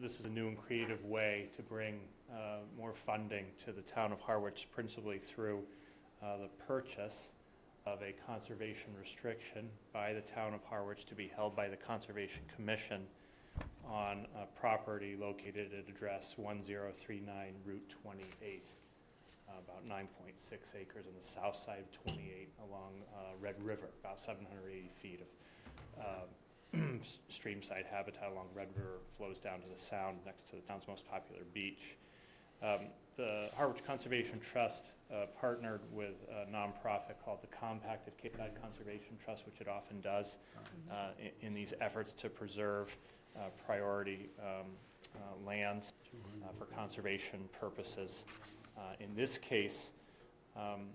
this is a new and creative way to bring uh, more funding to the town of Harwich, principally through uh, the purchase of a conservation restriction by the town of Harwich to be held by the Conservation Commission on a property located at address 1039 Route 28, uh, about 9.6 acres on the south side of 28 along uh, Red River, about 780 feet of um, s- streamside habitat along Red River flows down to the sound next to the town's most popular beach. Um, The Harwich Conservation Trust uh, partnered with a nonprofit called the Compact of Cape Cod Conservation Trust, which it often does uh, i- in these efforts to preserve uh, priority um, uh, lands uh, for conservation purposes. Uh, In this case, um,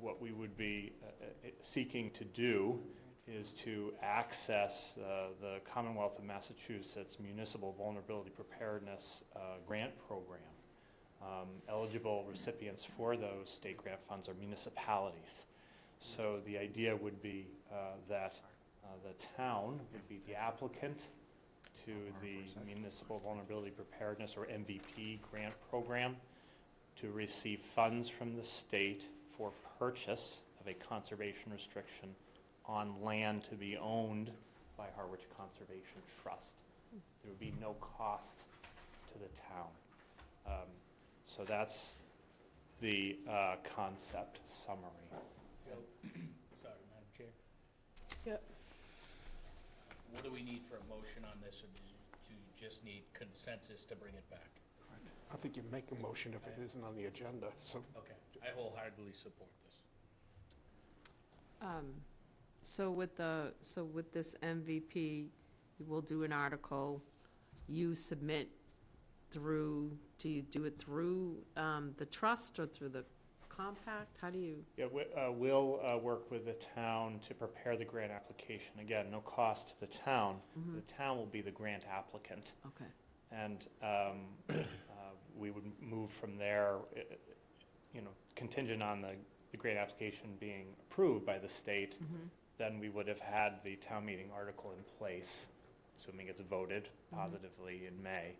what we would be uh, uh, seeking to do is to access uh, the Commonwealth of Massachusetts Municipal Vulnerability Preparedness uh, Grant Program. Um, Eligible recipients for those state grant funds are municipalities. So the idea would be uh, that uh, the town would be the applicant to the Municipal Vulnerability Preparedness, or MVP, grant program to receive funds from the state for purchase of a conservation restriction on land to be owned by Harwich Conservation Trust. There would be no cost to the town. Um, So that's the uh, concept summary. So, sorry, Madam Chair. Yep. What do we need for a motion on this, or do you- do you just need consensus to bring it back? I think you make a motion if it isn't on the agenda, so. Okay, I wholeheartedly support this. Um, So with the, so with this MVP, we'll do an article, you submit through, do you do it through um, the trust or through the compact? How do you, Yeah, we- uh, we'll uh, work with the town to prepare the grant application. Again, no cost to the town. The town will be the grant applicant. okay, And um, uh, we would move from there, i- i- you know, contingent on the, the grant application being approved by the state, Mm-hmm. then we would have had the town meeting article in place, assuming it's voted Mm-hmm. positively in May,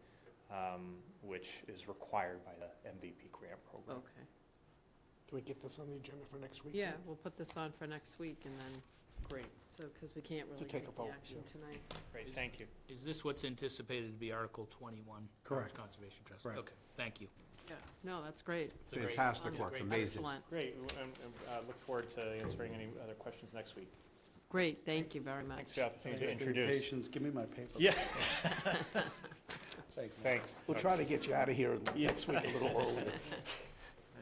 um, which is required by the MVP grant program. okay. Do we get this on the agenda for next week? Yeah, we'll put this on for next week and then, great, so, because we can't really take take a the vote, action yeah. tonight. Great, thank you. Is this what's anticipated to be Article 21? Correct. Conservation Trust? Correct. Okay, thank you. Yeah, no, that's great. It's a great- Fantastic it's work, great- amazing. Excellent, Great, and- and uh, look forward to answering any other questions next week. great, thank you very Thanks much. for the opportunity to Thanks for your introduce. Patience, give me my paper. Yeah, Thanks. thanks. We'll try to get you out of here next week a little earlier.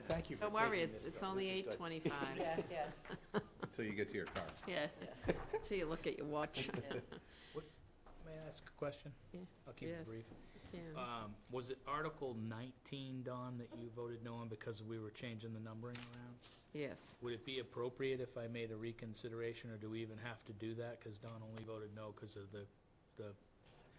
Thank you for Don't worry, taking it's, this, it's though. only This is good. 8:25. Until you get to your car. Yeah, till you look at your watch. May I ask a question? Yeah. I'll keep Yes. it brief. Yeah. Um, Was it Article 19, Don, that you voted no on because we were changing the numbering around? Yes, Would it be appropriate if I made a reconsideration, or do we even have to do that? Because Don only voted no because of the, the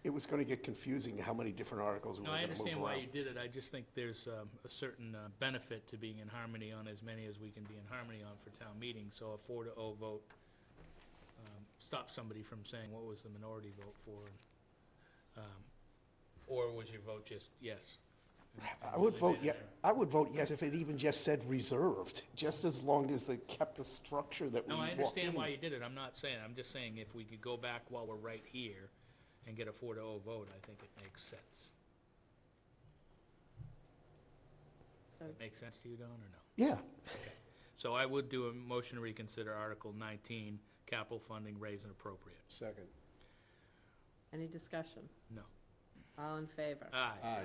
It was going to get confusing how many different articles we were No, I going to move understand why you around. did it, I just think there's um, a certain uh, benefit to being in harmony on as many as we can be in harmony on for town meetings, so a four to oh vote um, stops somebody from saying, what was the minority vote for? and, um, Or was your vote just yes? I would vote, yeah, I would vote yes if it even just said reserved, just as long as they kept the structure that we No, I walked understand in. why you did it, I'm not saying, I'm just saying if we could go back while we're right here and get a four to oh vote, I think it makes sense. So- That make sense to you, Don, or no? Yeah, So I would do a motion to reconsider Article 19, capital funding, raise and appropriate. Second. any discussion? No. All in favor? Aye. Aye.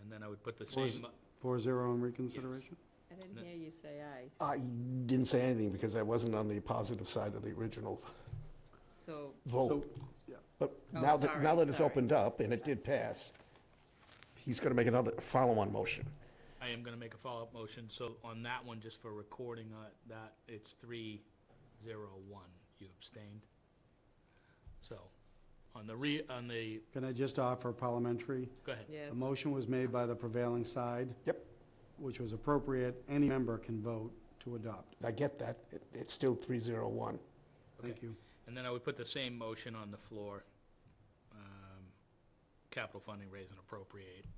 And then I would put the Or is- same, Four zero on reconsideration? I No. didn't hear you say aye. I didn't say anything because I wasn't on the positive side of the original So, vote. But Oh, now that, sorry, now that it's sorry. opened up and it did pass, he's going to make another follow-on motion. I am going to make a follow-up motion, so on that one, just for recording uh, that, it's 301. You abstained. So, on the re, on the, Can I just offer parliamentary? go ahead. yes. A motion was made by the prevailing side. Yep. Which was appropriate. Any member can vote to adopt. I get that. It- It's still 301. Thank Okay. you. And then I would put the same motion on the floor. um, capital funding raise and appropriate